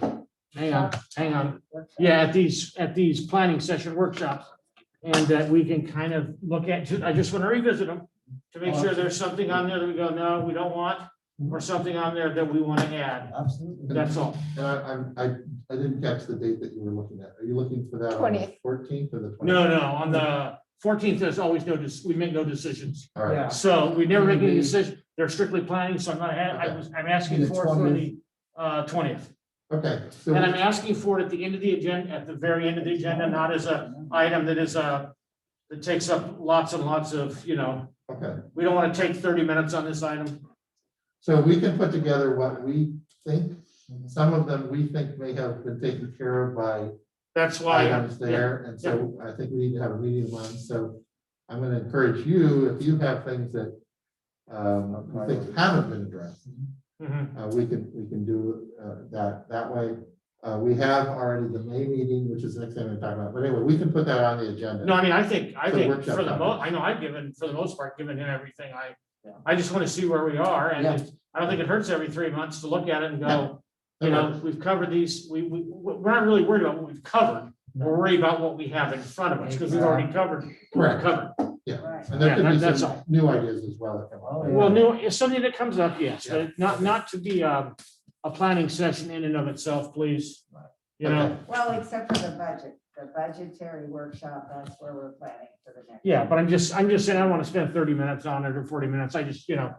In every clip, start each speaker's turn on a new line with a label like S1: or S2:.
S1: hang on, hang on. Yeah, at these, at these planning session workshops. And that we can kind of look at, I just want to revisit them to make sure there's something on there that we go, no, we don't want, or something on there that we want to add.
S2: Absolutely.
S1: That's all.
S3: And I, I'm- I, I didn't catch the date that you were looking at. Are you looking for that on the
S4: 20th.
S3: fourteenth or the twentieth?
S1: No, no, on the fourteenth, there's always no, dec- we make no decisions.
S3: All right,
S2: Yeah.
S1: So we never make any decision. They're strictly planning, so I'm not, ha- I
S3: Okay.
S1: was, I'm asking
S2: The
S1: for it for the uh, twentieth.
S3: okay. So
S1: And I'm asking for it at the end of the agenda, at the very end of the agenda, not as a item that is a, that takes up lots and lots of, you know,
S3: Okay,
S1: we don't want to take thirty minutes on this item.
S3: so we can put together what we think. Some of them we think may have been taken care of by
S1: That's why.
S3: items there, and so I think we need to have a meeting on, so I'm gonna encourage you, if you have things that um, you think haven't been addressed,
S1: Mhm.
S3: Uh, we can, we can do, uh, that, that way. Uh, we have already the May meeting, which is the next thing we're talking about, but anyway, we can put that on the agenda.
S1: No, I mean, I think, I
S3: The
S1: think
S3: workshop
S1: for the mo,
S3: topic.
S1: I know I've given, for the most part, given him everything. I,
S2: Yeah.
S1: I just want to see where we are and
S2: Yeah.
S1: it's- I don't think it hurts every three months to look at it and go, you know, we've covered these, we, we, we're not really worried about what we've covered. We're worried about what we have in front of us because we've already covered,
S3: Correct,
S1: covered.
S3: yeah,
S2: Right.
S3: and
S1: Yeah,
S3: there could
S1: that-
S3: be
S1: that's
S3: some
S1: all.
S3: new ideas as well. that come up.
S2: Oh, yeah.
S1: Well, no, if something that comes up, yes, but not, not to be a, a planning session in and of itself, please. You know,
S3: Okay.
S5: Well, except for the budget, the budgetary workshop, that's where we're planning for the next.
S1: yeah, but I'm just, I'm just saying, I don't want to spend thirty minutes on it or forty minutes. I just, you know,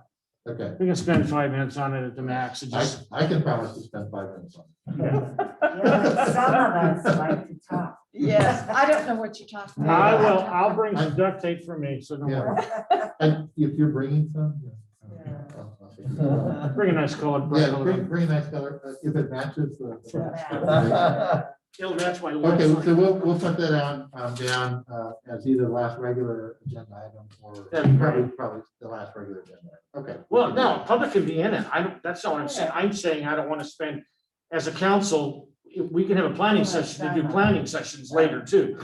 S3: Okay,
S1: we can spend five minutes on it at the max. It
S3: I,
S1: just,
S3: I can promise to spend five minutes on it.
S1: yeah.
S5: Yeah, but Some of us like to talk.
S4: Yes, I don't know what you're talking
S1: I
S4: about.
S1: will, I'll bring some duct tape for me, so don't worry.
S3: And if you're bringing some. yeah.
S5: Yeah.
S3: I'll- I'll take it.
S2: Uh-huh.
S3: Yeah,
S1: Bring a nice colored. bright
S3: bring,
S1: color.
S3: bring a nice color, uh, if it matches the.
S1: It'll match my
S3: Okay,
S1: lights.
S3: so we'll, we'll put that on, um, down, uh, as either last regular agenda item or
S1: That'd be great.
S3: probably, probably the last regular agenda. item. Okay.
S1: Well, no, public can be in it. I don't, that's not what I'm saying. I'm saying I don't want to spend, as a council, we can have a planning session to do planning sessions later too.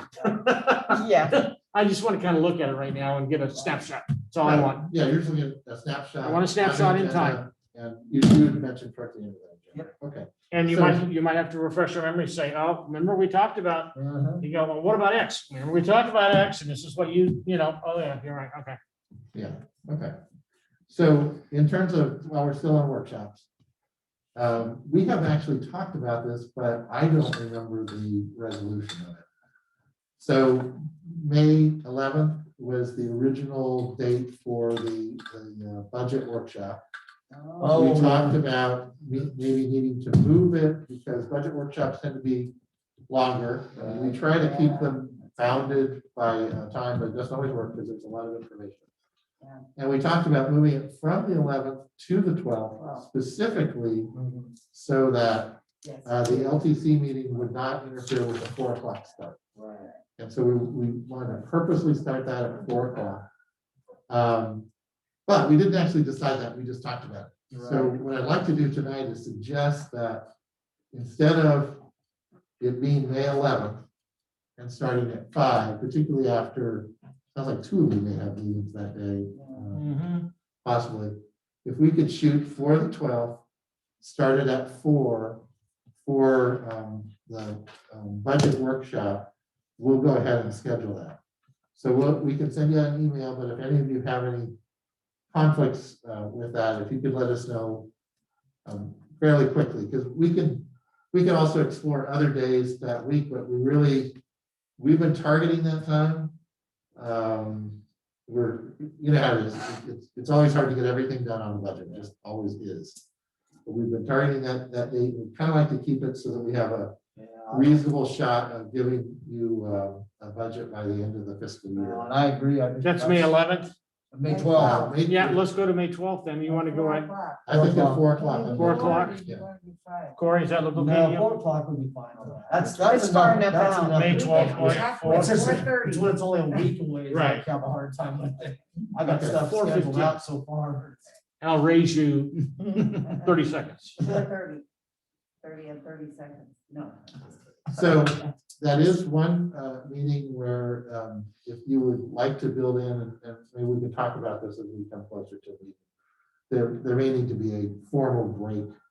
S4: Yeah,
S1: I just want to kind of look at it right now and get a snapshot. That's all I want.
S3: Yeah, you're just looking at a snapshot.
S1: I want a snapshot in time.
S3: And you, you had mentioned toward the end of that. agenda. Okay.
S1: And you might, you might have to refresh your memory, say, oh, remember we talked about,
S2: Uh-huh.
S1: you go, well, what about X? Remember we talked about X and this is what you, you know, oh yeah, you're right, okay.
S3: Yeah, okay. So in terms of, while we're still on workshops, um, we have actually talked about this, but I don't remember the resolution of it. So May eleventh was the original date for the, the uh, budget workshop.
S2: Oh.
S3: We talked about me- maybe needing to move it because budget workshops tend to be longer. Uh, We try to keep them bounded by uh, time, but it doesn't always work because there's a lot of information.
S5: Yeah.
S3: And we talked about moving it from the eleventh to the
S5: Wow.
S3: twelfth specifically so that
S5: Yes.
S3: uh, the LTC meeting would not interfere with the four o'clock start.
S2: Right.
S3: And so we, we wanted to purposely start that at four o'clock. Um, But we didn't actually decide that, we just talked about it. So what I'd like to do tonight is suggest that instead of it being May eleventh and starting at five, particularly after, sounds like two of you may have meetings that day, uh,
S2: Mm-hmm.
S3: possibly. If we could shoot for the twelfth, start it at four for um, the um, budget workshop we'll go ahead and schedule that. So we'll, we can send you an email, but if any of you have any conflicts uh, with that, if you could let us know um, fairly quickly, because we can, we can also explore other days that week, but we really, we've been targeting that time. Um, We're, you know how it is, it's, it's always hard to get everything done on a budget, it just always is. But We've been targeting that, that date, we kind of like to keep it so that we have a
S2: Yeah.
S3: reasonable shot of giving you uh, a budget by the end of the fiscal
S2: No,
S3: year.
S2: And I agree. I think
S1: That's May eleventh.
S2: May
S3: Well,
S2: twelve.
S3: maybe-
S1: Yeah, let's go to May twelfth then. You want to go
S5: Four
S1: at,
S5: o'clock.
S3: I think at four o'clock.
S5: Maybe
S1: Four
S5: you
S1: o'clock?
S5: wanna be-
S3: Yeah.
S5: you wanna be five.
S1: Corey, is that look okay? to
S2: No,
S1: you?
S2: four o'clock would be fine on that. That's, that's
S4: It's far
S2: enough.
S4: enough
S2: That's
S4: out.
S2: enough.
S1: May 12th,
S2: Yeah.
S1: yeah,
S5: Four-
S2: It's just-
S5: 4:30.
S2: It's when it's only a week away. it's
S1: Right.
S2: like I have a hard time with it. I got
S3: Okay.
S2: stuff
S1: 4:15.
S2: scheduled out so far.
S1: I'll raise you thirty seconds.
S5: Four thirty. Thirty and thirty seconds, no.
S3: So that is one uh, meeting where um, if you would like to build in, and- and maybe we can talk about this as we come closer to the. There, there may need to be a formal break